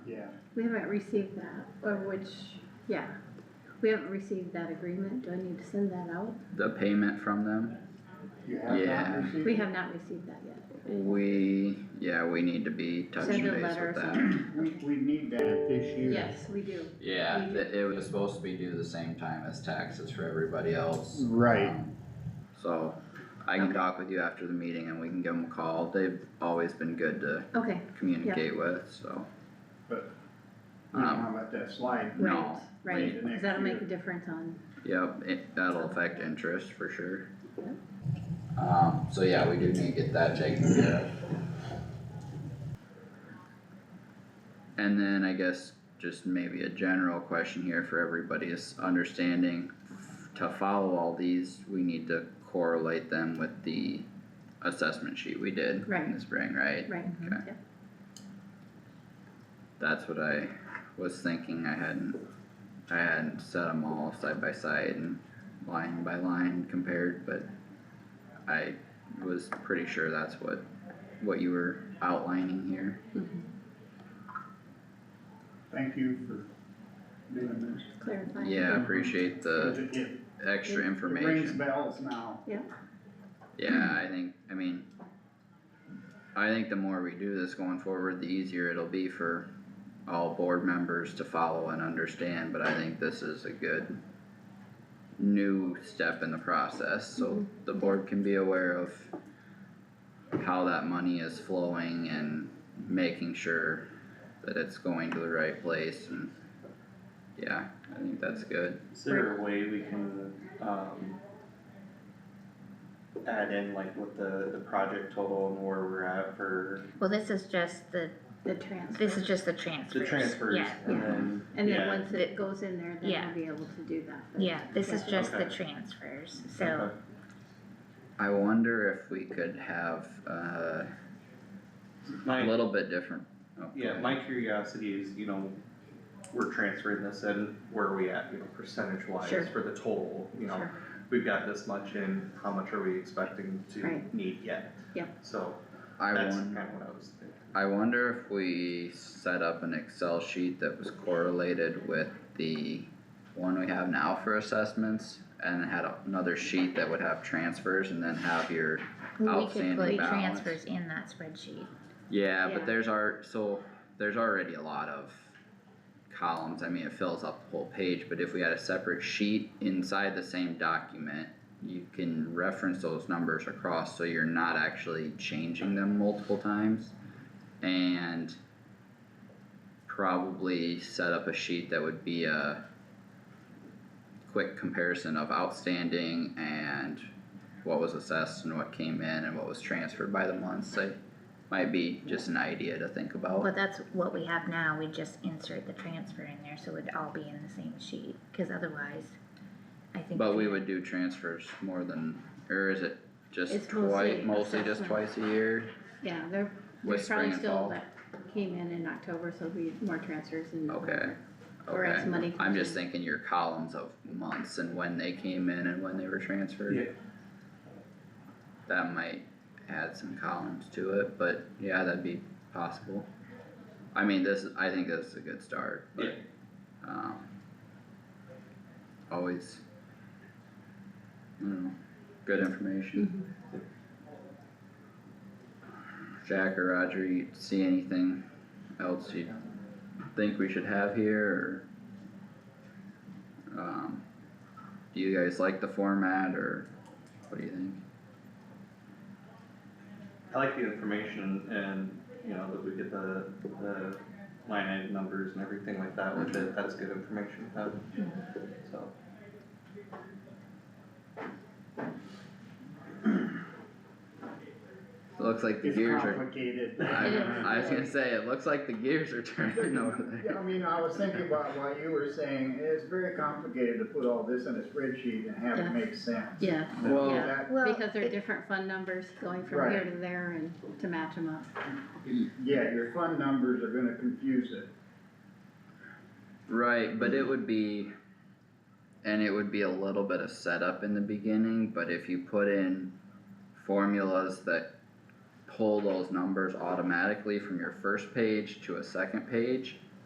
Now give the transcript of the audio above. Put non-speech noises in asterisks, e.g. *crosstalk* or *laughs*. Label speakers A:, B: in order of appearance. A: We haven't received that, or which, yeah, we haven't received that agreement, do I need to send that out?
B: the payment from them,
C: You have not
B: Yeah.
C: received?
A: We have not received that yet.
B: we, yeah, we need to be touching
A: Send a
B: base
A: letter
B: with
A: or
B: that.
A: something.
C: We, we need that this year.
A: Yes, we do.
B: Yeah, it, it was supposed to be due the same time as taxes for everybody else.
C: Right,
B: Um, So, I can talk with you after the meeting and we can give them a call, they've always been good to
A: Okay,
B: communicate with, so.
C: But- you know
B: Um,
C: how about that slide?
A: right,
B: No,
A: right,
C: wait.
A: 'cause that'll make a difference on,
B: Yep, it, that'll affect interest for sure.
A: Yep.
B: Um, so yeah, we do need to get that taken care of. And then I guess just maybe a general question here for everybody is understanding, to follow all these, we need to correlate them with the assessment sheet we did in the
A: Right.
B: spring, right?
A: right,
B: Okay.
A: Yep.
B: That's what I was thinking, I hadn't, I hadn't set them all side by side and line by line compared, but I was pretty sure that's what, what you were outlining here.
D: Mm-hmm.
A: Mhm.
C: Thank you for doing this.
A: Mm-hmm. clarifying.
B: Yeah, I appreciate the
C: It- it-
B: extra
C: It rings
B: uh, information,
C: bells now.
B: yeah, I think, I mean, I think the more we do this going forward, the easier it'll be for all board members to follow and understand, but I think this is a good new step in the process, so
A: Mhm.
B: the board can be aware of how that money is flowing and making sure that it's going to the right place and yeah, I think that's good.
E: Is there a way we can, um, add in like what the, the project total and where we're at for
D: Well, this is just the,
A: The transfer.
D: this is just the transfers.
E: the transfers
D: Yeah,
E: and then,
A: And then
E: yeah.
A: once it goes in there, then
D: Yeah.
A: we'll be able to do that. but-
D: yeah, this is just the
E: Okay.
D: transfers, so,
E: Okay.
B: I wonder if we could have uh, a
E: My,
B: little bit different. oh, go
E: yeah,
B: ahead.
E: my curiosity is, you know, we're transferring this and where are we at, you know, percentage wise
A: Sure.
E: for the total, you know?
A: Sure.
E: We've got this much in, how much are we expecting to
A: Right.
E: need yet?
A: Yeah.
E: So
B: I
E: that's
B: won-
E: kinda what I was thinking.
B: I wonder if we set up an Excel sheet that was correlated with the one we have now for assessments and had another sheet that would have transfers and then have your,
D: we
B: Outstanding
D: could put
B: balance.
D: transfers in that spreadsheet.
B: yeah,
A: Yeah.
B: but there's our, so there's already a lot of columns, I mean, it fills up the whole page, but if we had a separate sheet inside the same document, you can reference those numbers across, so you're not actually changing them multiple times. And probably set up a sheet that would be a quick comparison of outstanding and what was assessed and what came in and what was transferred by the months, like, might be just an idea to think about.
D: But that's what we have now, we just insert the transfer in there, so it'd all be in the same sheet, cause otherwise, I think.
B: But we
D: the-
B: would do transfers more than, or is it just
A: It's
B: twice,
A: mostly
B: mostly just
A: assessment.
B: twice a year?
A: Yeah, there,
B: With
A: there's probably
B: spring and
A: still
B: fall.
A: that came in in October, so there'll be more transfers in
B: Okay,
A: November. Or as
B: Okay,
A: money
B: I'm
A: comes
B: just
A: in.
B: thinking your columns of months and when they came in and when they were transferred.
E: Yeah.
B: That might add some columns to it, but yeah, that'd be possible. I mean, this, I think this is a good start,
E: Yeah.
B: but, um. Always. I don't know, good information.
A: Mhm.
B: Jack or Roger, you see anything else you think we should have here or? Um, do you guys like the format or what do you think?
E: I like the information and, you know, that we get the, the line item numbers and everything like that with it, that's good information, to have. so.
B: It looks like the
C: It's
B: gears are.
C: complicated.
B: I,
A: It is.
B: *laughs* I was gonna say, it looks like the gears are *laughs* turning over
C: Yeah, I
B: there.
C: mean, I was thinking about what you were saying, it's very complicated to put all this in a spreadsheet and have
A: Yeah.
C: it make sense.
A: Yeah,
B: Well,
A: Yeah.
C: That-
D: Well,
A: because they're
D: it-
A: different fund numbers going from
C: Right.
A: here to there and to match them up.
C: Yeah, your fund numbers are gonna confuse it.
B: Right, but it would be, and it would be a little bit of setup in the beginning, but if you put in formulas that pull those numbers automatically from your first page to a second page,